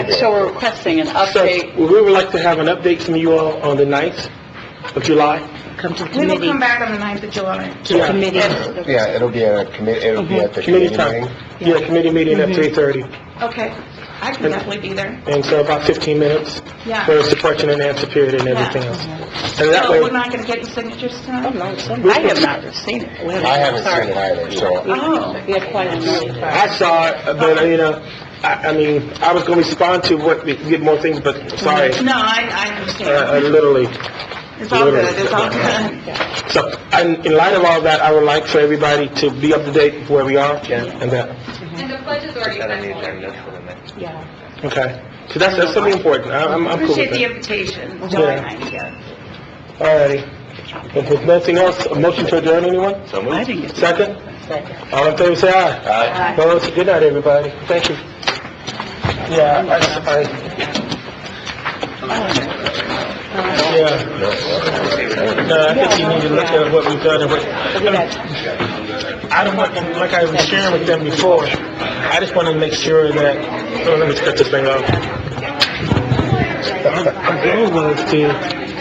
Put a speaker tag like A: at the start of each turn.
A: So we're requesting an
B: So,
A: update.
B: we would like to have an update from you all on the 9th of July.
C: Come to the
D: We will come
C: committee,
D: back on the 9th of July.
C: to the
B: Yeah.
C: committee.
E: Yeah, it'll be at a committee, it'll be at the
B: Mm-hmm. Committee
E: committee
B: time.
E: meeting.
B: Yeah, committee meeting
D: Mm-hmm.
B: at 3:30,
D: Okay, I can definitely be there,
B: and so about 15 minutes.
D: yeah.
B: There's the question and answer period and everything else. And that
D: So
B: way, Oh,
D: we're not gonna get the signatures tonight?
C: I have not seen it.
E: I haven't seen it either, so,
D: Oh,
A: We have quite a number.
B: I saw it, but, you know, I, I mean, I was gonna respond to what, get more things, but sorry,
D: no, I, I
B: Uh, uh,
D: understand.
B: literally.
D: It's all good, it's all good.
B: So, and in light of all that, I would like for everybody to be up to date with where we are and that,
F: And the pledge is already set.
B: okay? So that's, that's something important, I- I'm, I'm cool
D: Appreciate
B: with
D: the
B: that.
D: invitation,
B: Yeah.
D: July 9th, yes.
B: Alrighty. If there's nothing else, a motion to adjourn, anyone?
C: I didn't get
B: Second? All in favor, say aye.
E: uh,
B: Well, it's a good night, everybody. Thank you. Yeah, I, I... Yeah. No, I think you need to look at what we've done and what, I don't want, like I was sharing with them before, I just want to make sure that, oh, let me cut this thing off. The goal was to